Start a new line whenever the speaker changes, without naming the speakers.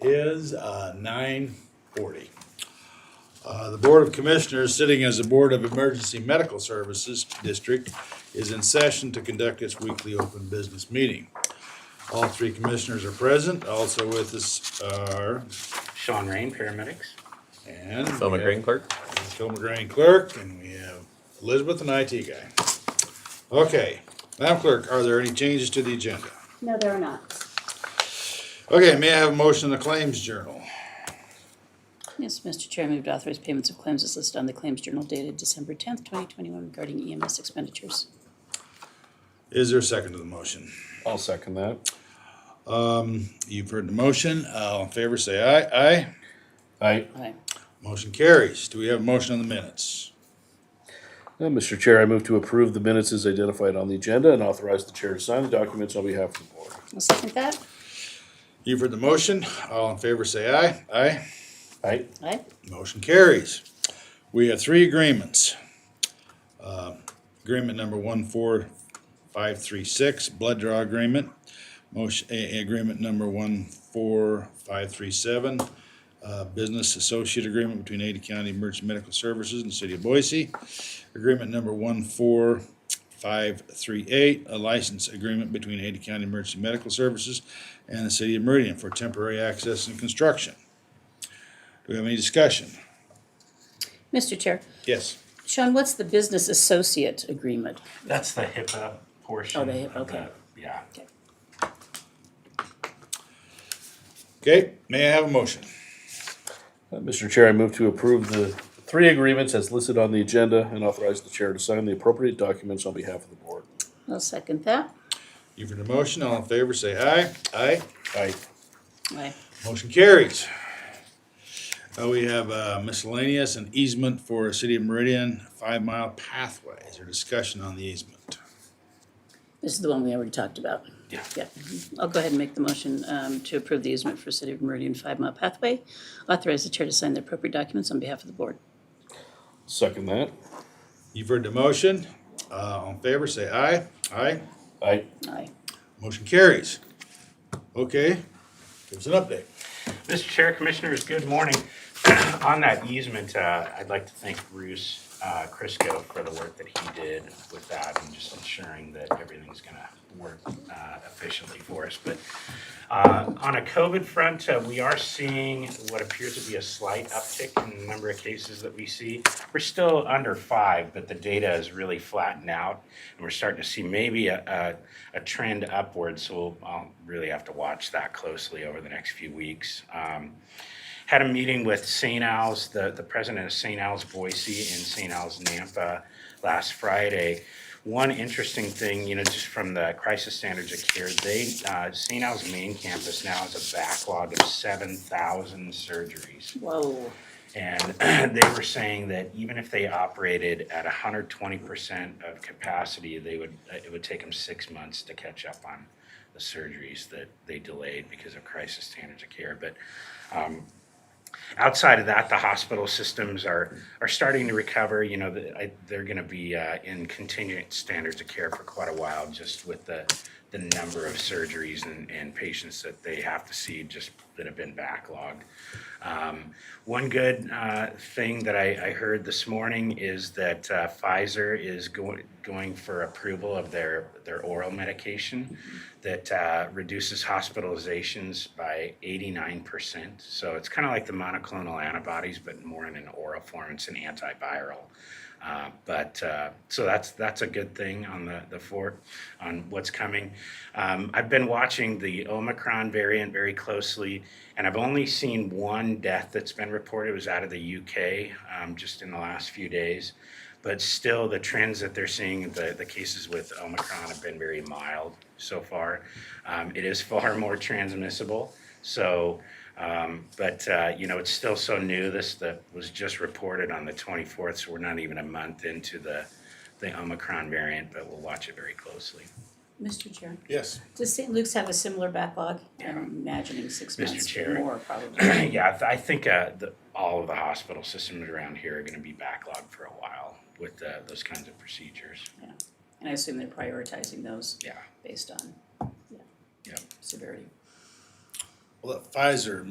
is uh, nine forty. Uh, The Board of Commissioners, sitting as the Board of Emergency Medical Services District, is in session to conduct its weekly open business meeting. All three commissioners are present, also with us are,
Sean Rain, paramedics.
and.
Thelma
we have-
Green Clerk?
Toma Green Clerk, and we have Elizabeth, an IT guy. Okay, Madam Clerk, are there any changes to the agenda?
No, there are not.
Okay, may I have a motion in the Claims Journal?
Yes, Mr. Chair, I move to authorize payments of claims as listed on the Claims Journal dated December tenth, twenty twenty-one regarding EMS expenditures.
Is there a second to the motion?
I'll second that.
You've heard the motion. All in favor, say aye. Aye.
Aye.
Aye.
Motion carries. Do we have a motion on the minutes?
Uh, Mr. Chair, I move to approve the minutes as identified on the agenda and authorize the chair to sign the documents on behalf of the board.
I'll second that.
You've heard the motion. All in favor, say aye. Aye.
Aye.
Aye.
Motion carries. We have three agreements. Uh, Agreement number one four five three six, blood draw agreement. Motion, a- agreement number one four five three seven, uh, business associate agreement between Ada County Emergency Medical Services and City of Boise. Agreement number one four five three eight, a license agreement between Ada County Emergency Medical Services and the City of Meridian for temporary access and construction. Do we have any discussion?
Mr. Chair,
Yes.
Sean, what's the business associate agreement?
That's the HIPAA portion.
Oh, the HIPAA,
of
okay.
the- Yeah.
Okay, may I have a motion?
Uh, Mr. Chair, I move to approve the three agreements as listed on the agenda and authorize the chair to sign the appropriate documents on behalf of the board.
I'll second that.
You've heard the motion, all in favor, say aye. Aye.
Aye.
Aye.
Motion carries. Uh, we have uh, miscellaneous and easement for City of Meridian Five Mile Pathway. Is there discussion on the easement?
This is the one we already talked about.
Yeah.
Yeah. Mhm. I'll go ahead and make the motion um, to approve the easement for City of Meridian Five Mile Pathway. Authorize the chair to sign the appropriate documents on behalf of the board.
Second that.
You've heard the motion, uh, all in favor, say aye. Aye.
Aye.
Aye.
Motion carries. Okay, give us an update.
Mr. Chair, Commissioners, good morning. On that easement, uh, I'd like to thank Bruce uh, Crisco for the work that he did with that and just ensuring that everything's going to work uh, efficiently for us. But uh, on a COVID front, uh, we are seeing what appears to be a slight uptick in the number of cases that we see. We're still under five, but the data is really flattened out, and we're starting to see maybe a, a, a trend upwards. So we'll I'll really have to watch that closely over the next few weeks. Um, had a meeting with St. Al's, the, the president of St. Al's Boise and St. Al's Nampa last Friday. One interesting thing, you know, just from the crisis standards of care, they, uh, St. Al's main campus now has a backlog of seven thousand surgeries.
Whoa.
And they were saying that even if they operated at hundred twenty percent of capacity, they would, it would take them six months to catch up on the surgeries that they delayed because of crisis standards of care. But um, outside of that, the hospital systems are, are starting to recover. You know, the- I- they're going to be uh, in contingent standards of care for quite a while, just with the, the number of surgeries and, and patients that they have to see just that have been backlogged. Um, One good uh, thing that I, I heard this morning is that uh, Pfizer is going, going for approval of their, their oral medication that uh, reduces hospitalizations by 89%. So it's kind of like the monoclonal antibodies, but more in an oral form. It's an antiviral. Uh, but uh, so that's that's a good thing on the the fort on what's coming. Um, I've been watching the Omicron variant very closely, and I've only seen one death that's been reported. It was out of the UK um, just in the last few days, but still the trends that they're seeing the the cases with Omicron have been very mild so far. Um, it is far more transmissible, so. Um, but, uh, you know, it's still so new. This that was just reported on the 24th, so we're not even a month into the, the Omicron variant, but we'll watch it very closely.
Mr. Chair,
Yes.
does St. Luke's have a similar backlog? I'm imagining six
Mr.
months or
Chair.
more probably.
yeah, I th- I think uh, the, all of the hospital systems around here are going to be backlogged for a while with uh, those kinds of procedures.
And I assume they're prioritizing those
Yeah.
based on yeah,
Yep.
severity.
Well, that Pfizer